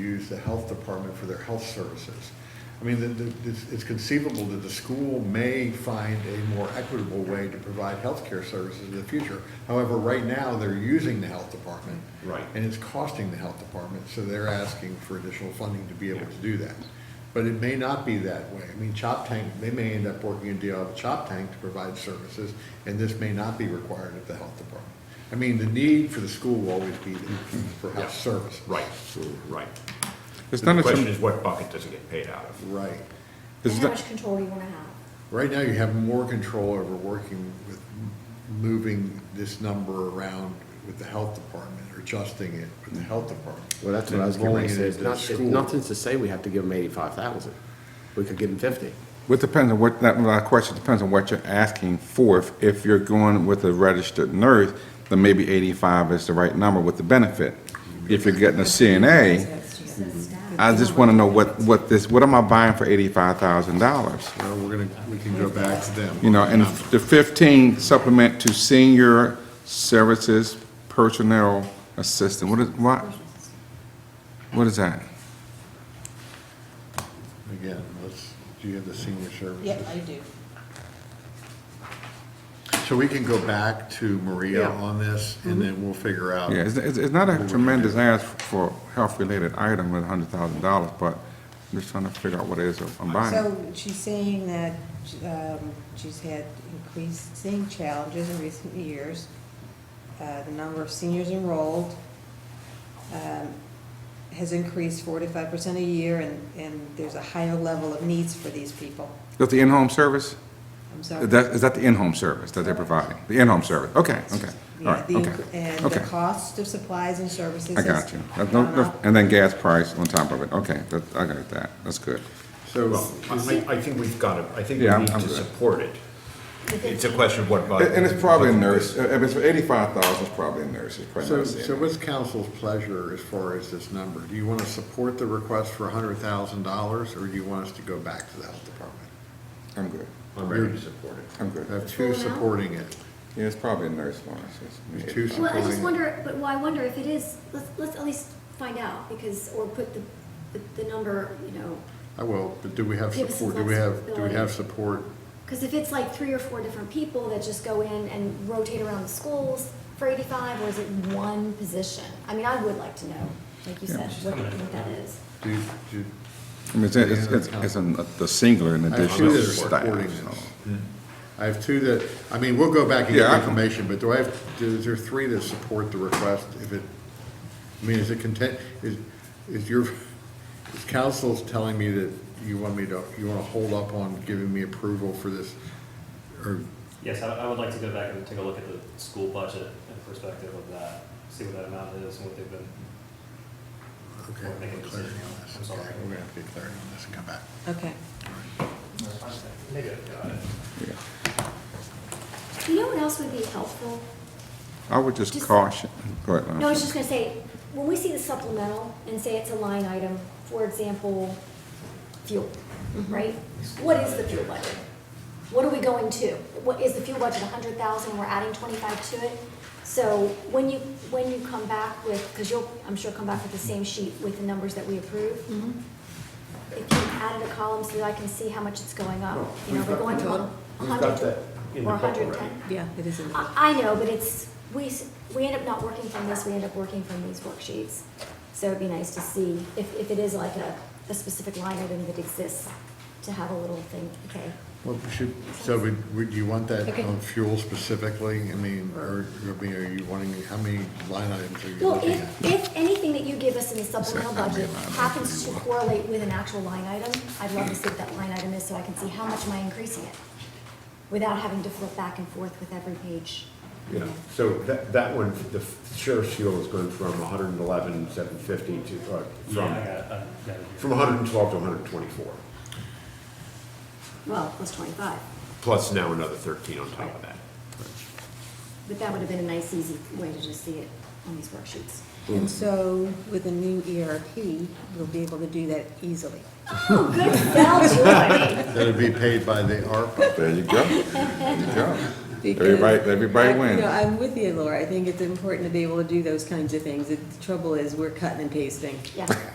use the health department for their health services. I mean, the- the- it's- it's conceivable that the school may find a more equitable way to provide healthcare services in the future. However, right now, they're using the health department. Right. And it's costing the health department, so they're asking for additional funding to be able to do that. But it may not be that way. I mean, Chop Tank, they may end up working a deal with Chop Tank to provide services, and this may not be required of the health department. I mean, the need for the school will always be there for health Yeah. service. Right, right. It's The not a, question sim- is what bucket does it get paid out of? Right. it's And how not, much control do you wanna have? Right now, you have more control over working with, moving this number around with the health department, or adjusting it with the health department. Well, that's what than I was going rolling to it say, it's into the not, it's school. nothing to say we have to give them eighty-five thousand. We could give them fifty. it depends on what, that, my question depends on what you're asking for. If- If you're going with a registered nurse, then maybe eighty-five is the right number with the benefit. If you're getting a CNA, Mm-hmm. I just wanna know what, what this, what am I buying for eighty-five thousand dollars? Well, we're gonna, we can go back to them. You know, and Number. the fifteen supplement to senior services personnel assistant, what is, what? What is that? Again, let's, do you have the senior services? Yeah, I do. So we can go back to Maria Yeah. on this, and then we'll figure out. Yeah, it's, it's it's not a tremendous ask for health-related item with a hundred thousand dollars, but I'm just trying to figure out what it is I'm buying. So she's saying that um, she's had increasing challenges in recent years. Uh, The number of seniors enrolled um, has increased four to five percent a year, and, and there's a higher level of needs for these people. That's the in-home service? I'm sorry. That, is that the in-home service that they're providing? The in-home service, okay, okay, all Yeah, right, the okay, inc- And the okay. cost of supplies and services. I got has you. That's no- gone no- up. And then gas price on top of it, okay, that, I got that, that's good. So, Well, I, I I think we've got to, I think we Yeah, I'm- need to I'm good. support it. It's a question of what bucket. And it's probably a nurse, Uh, if it's for eighty-five thousand, it's probably a nurse, it's probably so, not a so CNA. what's council's pleasure as far as this number? Do you want to support the request for hundred thousand dollars, or do you want us to go back to the health department? I'm good, I'm ready to support it. I'm I good. have two supporting it. Yeah, it's probably a nurse, Lawrence. it's- There's two Well, I just supporting it. wonder, but, well, I wonder if it is, let's, let's at least find out, because, or put the, the- the number, you know, I will, but do we have Give us support, do we have, do we flexibility. have support? because if it's like three or four different people that just go in and rotate around the schools for eighty-five, or is it one position? I mean, I would like to know, like you Yeah. said, what, what that is. Do, you- do, I mean, it's, it's, it's it's an- the singular in I have addition two to that are supporting staff. so. this. I have two that, I mean, we'll go back and Yeah, get I- information, but do I have, is there three that support the request if it, I mean, is it content, is, is your, is council's telling me that you want me to, you wanna hold up on giving me approval for this? Or, Yes, I, I would like to go back and take a look at the school budget and perspective of that, see what that amount is and what they've been. okay, We'll make a clarity decision. on I'm this, sorry. okay, we're gonna have to get clarity on this and come back. Okay. Maybe I've got it. You know what else would be helpful? I would just Just- caution, go ahead, No, I was Lawrence. just gonna say, when we see the supplemental and say it's a line item, for example, fuel, right? What is the fuel budget? What are we going to? What, is the fuel budget a hundred thousand, we're adding twenty-five to it? So when you, when you come back with, because you'll, I'm sure come back with the same sheet with the numbers that we approve. Mm-hmm. If you added a column so that I can see how much it's going up, you know, we're going to a hundred or a hundred and ten. Yeah, it is in the budget. I I know, but it's, we, s- we end up not working from this, we end up working from these worksheets. So it'd be nice to see if, if it is like a, a specific line item that exists, to have a little thing, okay? Well, we should, so would, would you want that Okay. on fuel specifically? I mean, or, I mean, are you wanting, how many line items are you Well, looking at? if, if anything that you give us in the supplemental Sorry, I made budget mine. happens to correlate with an actual line item, I'd love to see what that line item is, so I can see how much am I increasing it? Without having to flip back and forth with every page. Yeah, so that, that one, the sheriff's fuel is going from hundred and eleven, seven fifty to, uh, Yeah, I from, got it, I got it here. from hundred and twelve to hundred and twenty-four, Well, plus twenty-five, plus now another thirteen on top of that. but that would have been a nice, easy way to just see it on these worksheets. Mm-hmm. And so with the new ERP, we'll be able to do that easily. Oh, good sell, Joy. That'd be paid by the ARPA. There you go, there you go. Because- Everybody- everybody I- you wins. know, I'm with you, Laura. I think it's important to be able to do those kinds of things. The trouble is, we're cutting and pasting. Yeah.